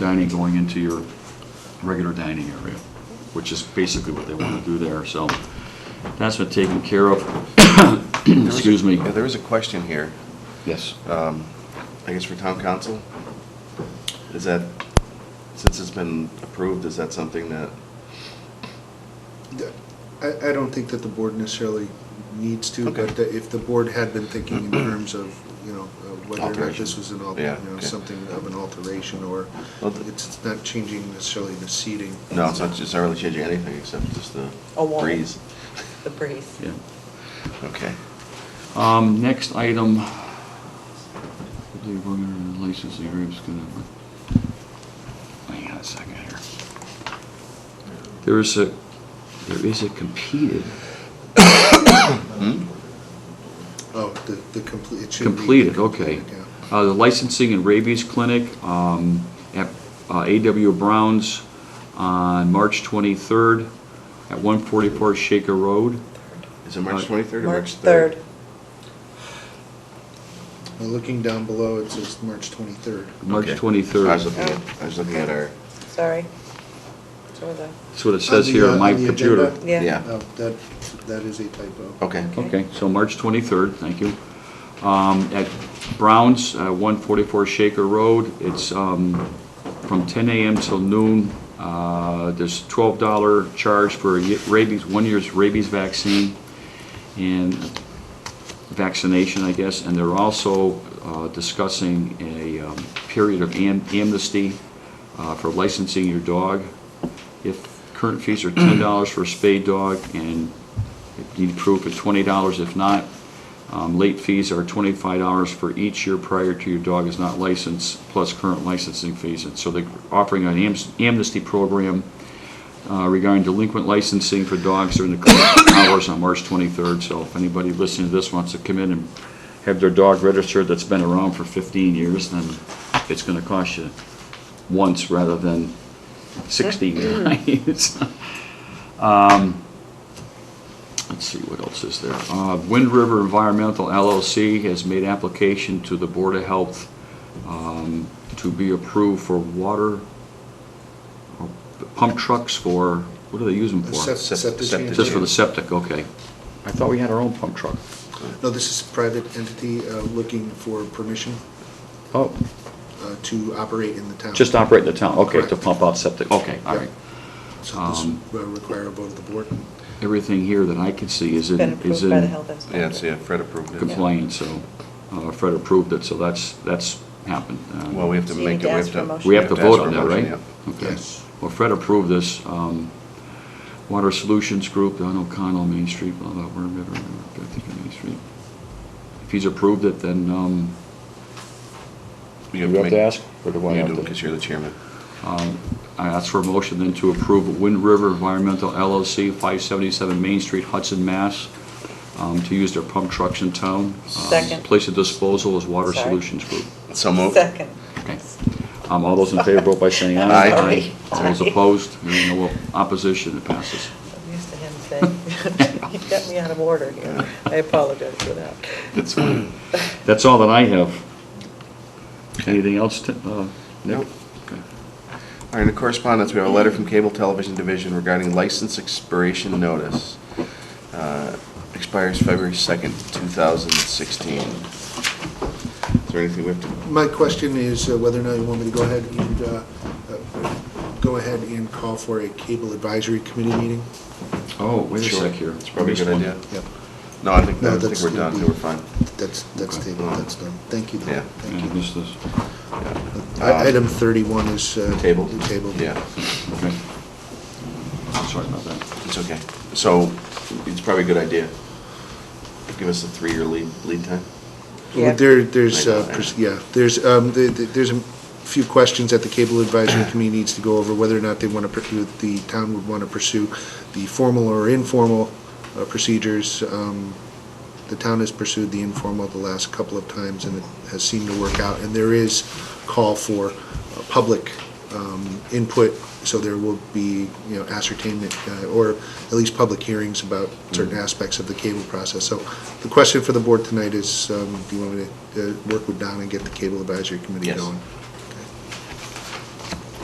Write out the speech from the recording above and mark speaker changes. Speaker 1: dining going into your regular dining area, which is basically what they want to do there, so that's been taken care of.
Speaker 2: There was a-
Speaker 1: Excuse me.
Speaker 2: Yeah, there was a question here,
Speaker 1: Yes.
Speaker 2: um, I guess for town council. Is that, since it's been approved, is that something that,
Speaker 3: I, I don't think that the board necessarily needs to,
Speaker 2: Okay.
Speaker 3: but that if the board had been thinking in terms of, you know, uh, whether or not
Speaker 2: Alteration.
Speaker 3: this was an, al- you
Speaker 2: Yeah,
Speaker 3: know,
Speaker 2: okay.
Speaker 3: something of an alteration or
Speaker 2: Well, th-
Speaker 3: it's it's not changing necessarily the seating.
Speaker 2: no, it's not, it's not really changing anything except just the
Speaker 4: A wall.
Speaker 2: breeze?
Speaker 4: The breeze.
Speaker 1: Yeah.
Speaker 2: Okay.
Speaker 1: Um, next item, I believe we're gonna license the agreement's gonna, hang on a second here. There is a, there is a competed,
Speaker 3: Oh, the, the complete, it should be.
Speaker 1: completed, okay.
Speaker 3: completed, yeah.
Speaker 1: Uh, the licensing and rabies clinic, um, at uh, A.W. Brown's on March twenty-third at one forty-four Shaker Road.
Speaker 2: Is it March
Speaker 1: Uh,
Speaker 2: 23rd or
Speaker 4: March
Speaker 2: March
Speaker 4: 3rd.
Speaker 2: 3rd?
Speaker 3: Now, Looking down below, it says March twenty-third.
Speaker 1: March
Speaker 2: Okay. I was
Speaker 1: 23rd.
Speaker 2: looking at, I was looking at our,
Speaker 4: Sorry. So the,
Speaker 1: That's what it says here on my computer.
Speaker 4: yeah.
Speaker 2: Yeah.
Speaker 3: Oh, that, that is a typo.
Speaker 2: okay.
Speaker 1: Okay, so March 23rd, thank you. Um, At Brown's, uh, 144 Shaker Road, it's um, from 10 a.m. till noon. Uh, There's $12 charge for a ye- rabies, one year's rabies vaccine and vaccination, I guess. And they're also uh, discussing a um, period of am- amnesty uh, for licensing your dog. If current fees are $10 for a spayed dog and if you need proof at twenty dollars, if not, um, late fees are twenty-five dollars for each year prior to your dog is not licensed, plus current licensing fees. And so they're offering an am- amnesty program uh, regarding delinquent licensing for dogs during the closing hours on March twenty-third. So if anybody listening to this wants to come in and have their dog registered that's been around for fifteen years, then it's gonna cost you once rather than sixteen
Speaker 4: Hmm.
Speaker 1: or Um, Let's see, what else is there? Uh, Wind River Environmental LLC has made application to the Board of Health um, to be approved for water uh, pump trucks for, what do they use them for?
Speaker 3: Sep-
Speaker 1: Just
Speaker 2: Sep-
Speaker 3: septic
Speaker 2: septic.
Speaker 3: tank.
Speaker 1: for the septic, okay. I thought we had our own pump truck.
Speaker 3: No, this is a private entity, uh, looking for permission,
Speaker 1: Oh,
Speaker 3: uh, to operate in the town.
Speaker 1: just operate in the town, okay, to
Speaker 3: Correct.
Speaker 1: pump out septic, okay, all
Speaker 3: Yep.
Speaker 1: right.
Speaker 3: So this
Speaker 1: um,
Speaker 3: will require a vote of the board.
Speaker 1: Everything here that I can see is in,
Speaker 4: been
Speaker 1: is
Speaker 4: approved
Speaker 1: in.
Speaker 4: by the health inspector.
Speaker 2: Yeah, so yeah, Fred approved it.
Speaker 1: complaint, so uh, Fred approved it, so that's, that's happened. Uh,
Speaker 2: Well, we have to
Speaker 4: So you
Speaker 2: make
Speaker 4: need
Speaker 2: it, we
Speaker 4: to
Speaker 2: have
Speaker 4: ask for a
Speaker 2: to.
Speaker 4: motion.
Speaker 1: We have to
Speaker 2: ask
Speaker 1: vote
Speaker 2: for
Speaker 1: on
Speaker 2: a
Speaker 1: that,
Speaker 2: motion,
Speaker 1: right? Okay.
Speaker 3: Yes.
Speaker 1: Well, Fred approved this. um, Water Solutions Group, Don O'Connell, Main Street, blah, blah, blah, blah, blah, blah, I think it's Main Street. If he's approved it, then, um,
Speaker 2: yeah. You
Speaker 1: Do we have
Speaker 2: make-
Speaker 1: to ask, or do I have
Speaker 2: You do,
Speaker 1: to?
Speaker 2: because you're the chairman.
Speaker 1: um, I ask for a motion then to approve Wind River Environmental LLC, 577 Main Street, Hudson, Mass., um, to use their pump trucks in town. Um,
Speaker 4: Second.
Speaker 1: Place of disposal is Water
Speaker 4: Sorry.
Speaker 1: Solutions Group.
Speaker 2: So moved.
Speaker 4: Second.
Speaker 1: Okay. Um, all those in favor, vote by saying aye.
Speaker 2: Aye.
Speaker 1: All those
Speaker 4: Sorry.
Speaker 1: opposed, hearing no opposition, it passes.
Speaker 4: I'm used to him saying, you got me out of order here. I apologize for that.
Speaker 2: That's fine.
Speaker 1: That's all that I have. Anything else, Ti- uh, Nick?
Speaker 2: Nope.
Speaker 1: Okay.
Speaker 2: All right, in correspondence, we have a letter from Cable Television Division regarding license expiration notice. Uh, Expires February 2nd, 2016. Is there anything we have to,
Speaker 3: My question is uh, whether or not you want me to go ahead and, uh, uh, go ahead and call for a cable advisory committee meeting?
Speaker 1: Oh, wait a
Speaker 2: Sure.
Speaker 1: sec here.
Speaker 2: It's probably a
Speaker 1: Missed
Speaker 2: good
Speaker 1: one.
Speaker 2: idea.
Speaker 3: Yep,
Speaker 2: no, I think,
Speaker 3: No,
Speaker 2: I think
Speaker 3: that's
Speaker 2: we're
Speaker 3: gonna
Speaker 2: done, I
Speaker 3: be-
Speaker 2: think we're fine.
Speaker 3: that's, that's
Speaker 1: Okay.
Speaker 3: tabled, that's done. Thank you, though.
Speaker 2: Yeah.
Speaker 3: Thank
Speaker 1: Yeah, I
Speaker 3: you.
Speaker 1: missed this.
Speaker 3: I- Item 31 is. uh,
Speaker 2: Table?
Speaker 3: Tabled.
Speaker 2: Yeah,
Speaker 1: Okay. Sorry about that.
Speaker 2: it's okay. So it's probably a good idea. Give us a three-year lead, lead time.
Speaker 4: Yeah.
Speaker 3: Well, There, there's,
Speaker 2: I know,
Speaker 3: uh,
Speaker 2: I
Speaker 3: pers-
Speaker 2: know.
Speaker 3: yeah, there's, um, the- the- there's a few questions that the Cable Advisory Committee needs to go over, whether or not they want to, the town would want to pursue the formal or informal uh, procedures. Um, The town has pursued the informal the last couple of times, and it has seemed to work out. And there is call for uh, public um, input, so there will be, you know, ascertainment, uh, or at least public hearings about certain aspects of the cable process. So the question for the board tonight is, um, do you want me to uh, work with Don and get the cable advisory committee
Speaker 2: Yes.
Speaker 3: going?